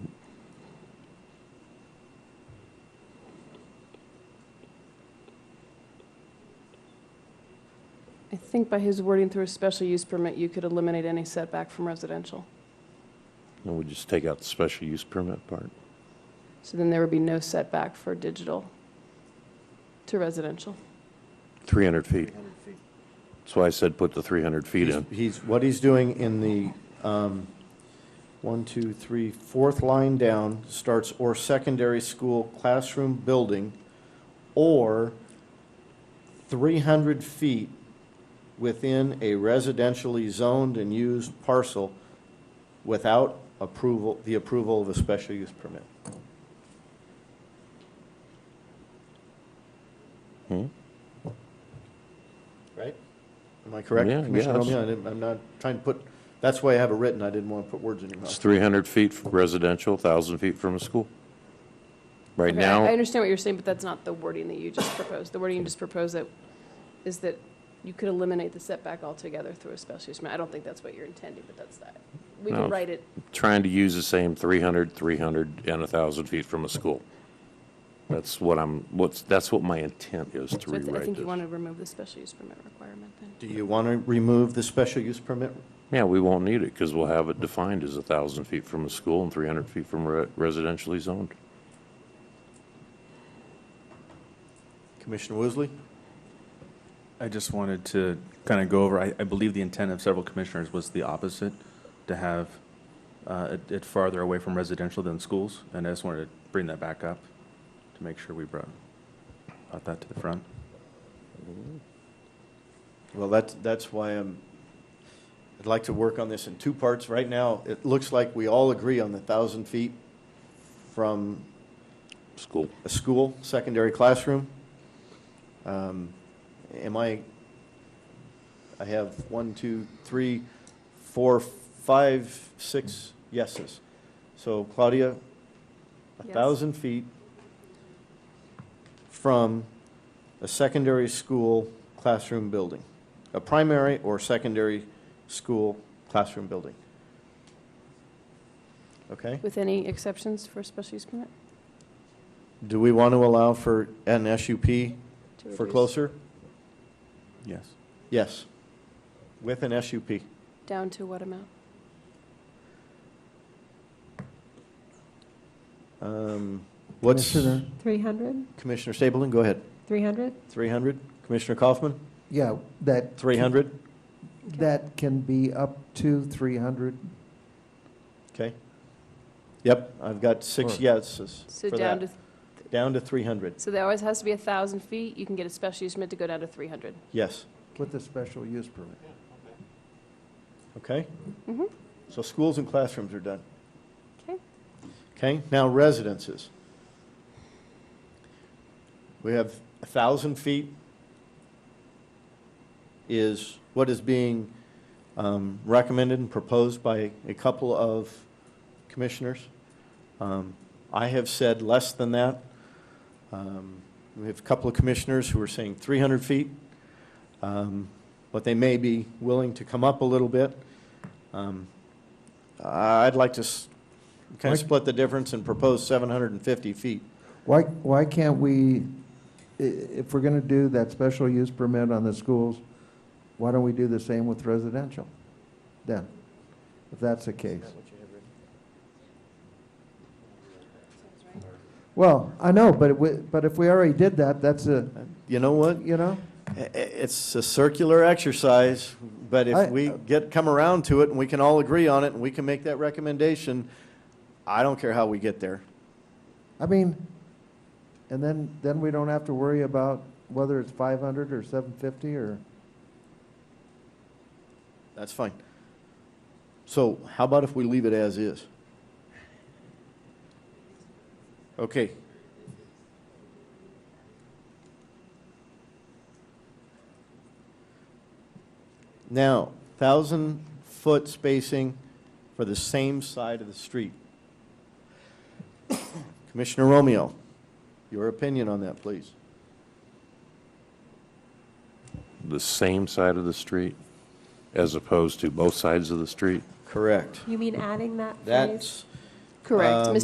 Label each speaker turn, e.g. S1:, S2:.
S1: I think by his wording through a special use permit, you could eliminate any setback from residential.
S2: And we just take out the special use permit part?
S1: So then there would be no setback for digital to residential.
S2: 300 feet. That's why I said put the 300 feet
S3: He's-
S2: in.
S3: He's, what he's doing in the, um, one, two, three, fourth line down, starts or secondary school classroom building, or three hundred feet within a residentially zoned and used parcel without approval, the approval of a special use permit.
S2: Hmm?
S3: Right? Am I correct?
S2: Yeah, yeah,
S3: Commissioner
S2: that's-
S3: Romeo? I didn't- I'm not trying to put, that's why I have it written, I didn't want to put words in your
S2: It's
S3: mouth.
S2: 300 feet from residential, 1,000 feet from a school. Right
S1: Okay, I- I
S2: now,
S1: understand what you're saying, but that's not the wording that you just proposed. The wording you just proposed that, is that you could eliminate the setback altogether through a special use permit. I don't think that's what you're intending, but that's that. We
S2: No.
S1: can write it,
S2: trying to use the same 300, 300, and 1,000 feet from a school. That's what I'm, what's, that's what my intent is to
S1: so I th- I
S2: rewrite
S1: think you want
S2: this.
S1: to remove the special use permit requirement then.
S3: Do you want to remove the special use permit?
S2: Yeah, we won't need it because we'll have it defined as 1,000 feet from a school and 300 feet from re- residentially zoned.
S3: Commissioner Woosley?
S4: I just wanted to kind of go over, I, I believe the intent of several commissioners was the opposite, to have uh, it- it farther away from residential than schools, and I just wanted to bring that back up to make sure we brought, brought that to the front.
S3: Well, that's, that's why I'm, I'd like to work on this in two parts. Right now, it looks like we all agree on the 1,000 feet from
S2: School.
S3: a school, secondary classroom. Um, Am I, I have one, two, three, four, five, six yeses. So Claudia, a
S1: Yes.
S3: thousand feet from a secondary school classroom building, a primary or secondary school classroom building. Okay?
S1: With any exceptions for a special use permit?
S3: Do we want to allow for an SUP
S1: to
S3: for
S1: reduce
S3: closer?
S4: Yes.
S3: Yes. With an SUP.
S1: Down to what amount?
S3: Um, What's,
S5: Commissioner,
S6: 300?
S3: Commissioner Stapleton, go ahead.
S6: 300?
S3: 300? Commissioner Kaufman,
S5: yeah, that.
S3: 300?
S5: That can be up to 300.
S3: Okay. Yep, I've got six yeses
S1: So
S3: for
S1: down
S3: that.
S1: to,
S3: Down to 300,
S1: so there always has to be a 1,000 feet. You can get a special use permit to go down to 300.
S3: yes.
S5: With a special use permit.
S3: Okay?
S1: Mhm.
S3: So schools and classrooms are done.
S1: Okay.
S3: Okay, now residences. We have a thousand feet is what is being um, recommended and proposed by a couple of commissioners. Um, I have said less than that. Um, We have a couple of commissioners who are saying three hundred feet. Um, But they may be willing to come up a little bit. Um, I'd like to kind
S5: Mike?
S3: of split the difference and propose 750 feet.
S5: Why, why can't we, i- if we're going to do that special use permit on the schools, why don't we do the same with residential then? If that's the case. Well, I know, but we, but if we already did that, that's a,
S3: Uh, You know what?
S5: you know?
S3: I- i- It's a circular exercise, but
S5: I-
S3: if we get, come around to it and we can all agree on it and we can make that recommendation, I don't care how we get there.
S5: I mean, and then, then we don't have to worry about whether it's five hundred or seven fifty or,
S3: That's fine. So how about if we leave it as is? Okay. Now, thousand foot spacing for the same side of the street. Commissioner Romeo, your opinion on that, please.
S2: The same side of the street as opposed to both sides of the street?
S3: Correct.
S6: You mean adding that phrase?
S3: That's
S1: Correct.
S3: Um,
S1: Mr.